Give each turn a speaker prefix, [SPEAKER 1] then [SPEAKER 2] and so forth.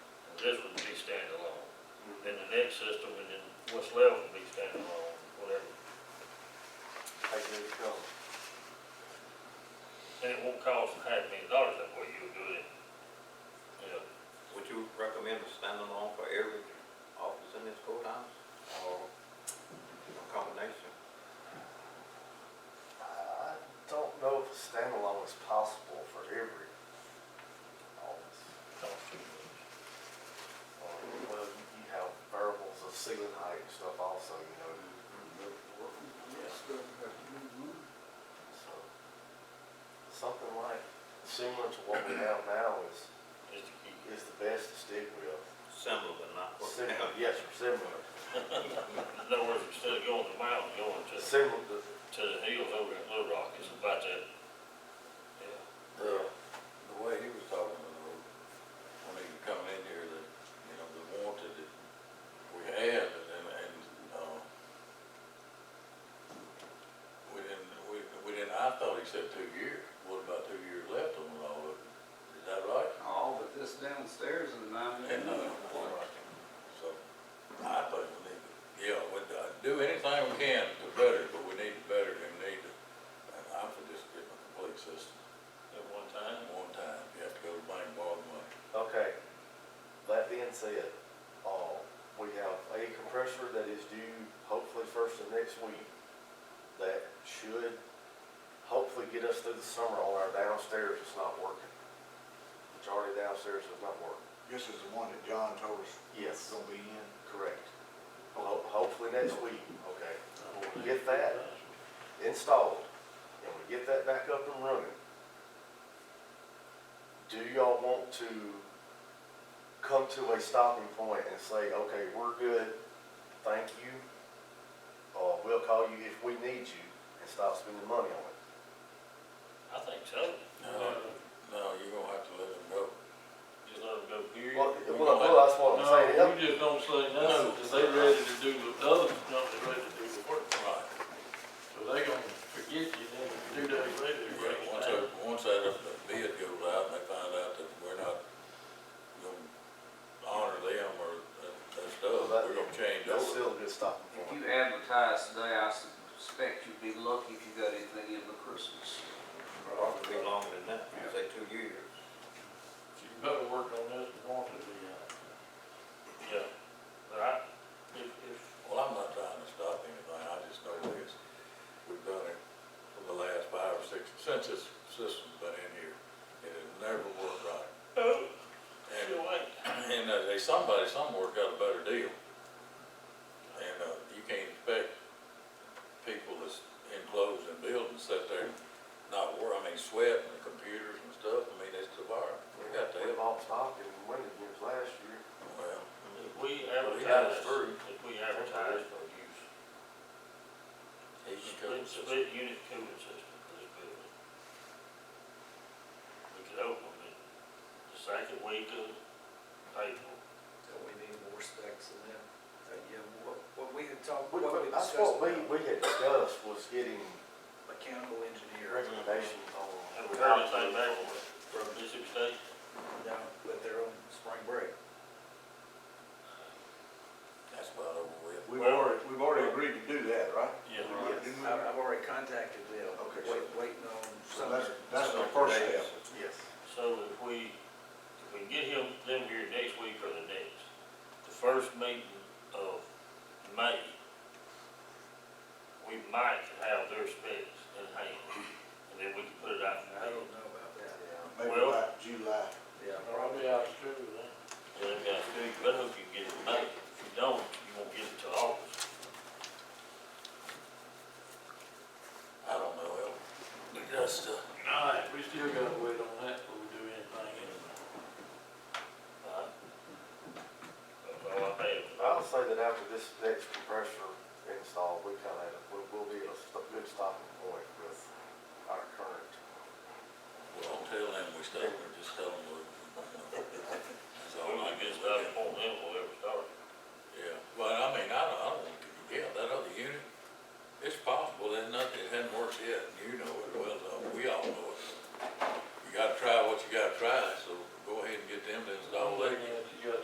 [SPEAKER 1] this would be standalone. Then the next system, and then what's left would be standalone, whatever.
[SPEAKER 2] Take it as it comes.
[SPEAKER 1] And it won't cost a half million dollars that way, you'll do it. Yeah,
[SPEAKER 3] Would you recommend a standalone for every office in this courthouse, or a combination?
[SPEAKER 2] I don't know if a standalone is possible for every office.
[SPEAKER 1] cost too much.
[SPEAKER 2] Or, Well, you have variables of ceiling height and stuff also, you know, so. Something like similar to what we have now is,
[SPEAKER 1] Just to keep it.
[SPEAKER 2] is the best to stick with.
[SPEAKER 3] Similar but not what we
[SPEAKER 2] Similar,
[SPEAKER 3] have.
[SPEAKER 2] yes, or similar.
[SPEAKER 1] In other words, instead of going to the mountain, going to, to
[SPEAKER 2] Similar to,
[SPEAKER 1] the hills over at Little Rock, it's about that. Yeah,
[SPEAKER 2] uh,
[SPEAKER 4] The way he was talking, though, when he was coming in here, that, you know, the wanted that we had, and, then- and, uh, we didn't, we, we didn't, I thought he said two years, what about two years left on all of it? Is that right?
[SPEAKER 5] All but this downstairs is nine
[SPEAKER 4] And, uh,
[SPEAKER 5] million.
[SPEAKER 4] so, I think we need, to yeah, we, uh, do anything we can to better, but we need to better, and we need to, and I'm for just getting a complete system,
[SPEAKER 1] at one time.
[SPEAKER 4] one time, you have to go to the bank, borrow the money.
[SPEAKER 2] Okay, that being said, uh, we have a compressor that is due hopefully first of next week. That should hopefully get us through the summer on our downstairs, it's not working. Majority downstairs is not working.
[SPEAKER 6] This is the one that John told us was
[SPEAKER 2] Yes.
[SPEAKER 6] gonna be in.
[SPEAKER 2] Correct. Ho- hopefully next week, okay. When we get that installed, and we get that back up and running, do y'all want to come to a stopping point and say, okay, we're good, thank you, or we'll call you if we need you, and stop spending money on it?
[SPEAKER 1] I think so.
[SPEAKER 4] No, no, you're gonna have to let them go.
[SPEAKER 1] Just let them go period.
[SPEAKER 2] Well, well, well, that's what I'm saying,
[SPEAKER 1] No, we just don't say no,
[SPEAKER 4] No.
[SPEAKER 1] because they ready to do the, other company ready to do the work.
[SPEAKER 4] Right.
[SPEAKER 1] So they gonna forget you, then two days later, you're
[SPEAKER 4] Yeah, once
[SPEAKER 1] right.
[SPEAKER 4] that, once that uh, bid goes out and they find out that we're not gonna honor them or that, that stuff, we're gonna change
[SPEAKER 2] that's
[SPEAKER 4] over.
[SPEAKER 2] still a good stopping
[SPEAKER 5] If
[SPEAKER 2] point.
[SPEAKER 5] you advertise today, I suspect you'd be lucky if you got anything in the Christmas.
[SPEAKER 3] Probably longer than that, say two years.
[SPEAKER 1] You better work on this and want to be out. Yeah, but I, if, if,
[SPEAKER 4] Well, I'm not trying to stop anything, I just know that it's, we've done it for the last five or six, since this system's been in here, it has never worked right.
[SPEAKER 1] oh,
[SPEAKER 4] And
[SPEAKER 1] you wait.
[SPEAKER 4] And uh, they, somebody somewhere got a better deal. And, uh, you can't expect people that's enclosed in buildings sit there not wor, I mean, sweating and computers and stuff, I mean, it's the bar, we got to
[SPEAKER 2] We
[SPEAKER 4] help.
[SPEAKER 2] bought stock in Winter Games last year.
[SPEAKER 4] Well,
[SPEAKER 1] If we
[SPEAKER 4] we got
[SPEAKER 1] advertise,
[SPEAKER 4] us through.
[SPEAKER 1] if we advertise for use,
[SPEAKER 4] he can come
[SPEAKER 1] split, split unit cooling system for this building. We could open it the second week of April.
[SPEAKER 7] Don't we need more specs than that? Uh, Yeah, what, what we had talked,
[SPEAKER 2] We-
[SPEAKER 7] what we
[SPEAKER 2] That's
[SPEAKER 7] discussed.
[SPEAKER 2] what we,
[SPEAKER 7] about
[SPEAKER 2] we had discussed was getting
[SPEAKER 7] Mechanical engineer,
[SPEAKER 2] recommendations
[SPEAKER 1] And
[SPEAKER 2] on.
[SPEAKER 1] we heard anything back from Mississippi State?
[SPEAKER 7] no, but they're on spring break.
[SPEAKER 4] that's about over with.
[SPEAKER 6] We've already, we've already agreed to do that, right?
[SPEAKER 1] Yeah.
[SPEAKER 7] Yes, I've, I've already contacted them,
[SPEAKER 6] Okay, so-
[SPEAKER 7] wait, waiting on
[SPEAKER 6] So
[SPEAKER 7] some.
[SPEAKER 6] that's, that's the first step.
[SPEAKER 2] Yes.
[SPEAKER 1] So if we, if we get him, them here next week or the next, the first meeting of May, we might have their specs in hand, and then we can put it out.
[SPEAKER 7] I don't know about that.
[SPEAKER 6] Maybe
[SPEAKER 1] Well-
[SPEAKER 6] by July.
[SPEAKER 7] Yeah.
[SPEAKER 1] Probably out of school then. Yeah, they got school, you better hope you get it in May, if you don't, you won't get it till August.
[SPEAKER 4] I don't know, Elton. That's, uh,
[SPEAKER 1] All right, we still gotta wait on that before we do anything anyway. All right. That's all I have.
[SPEAKER 2] I would say that after this next compressor install, we kind of, we will be at a st- good stopping point with our current.
[SPEAKER 4] well, don't tell them we stay, we're just telling them we're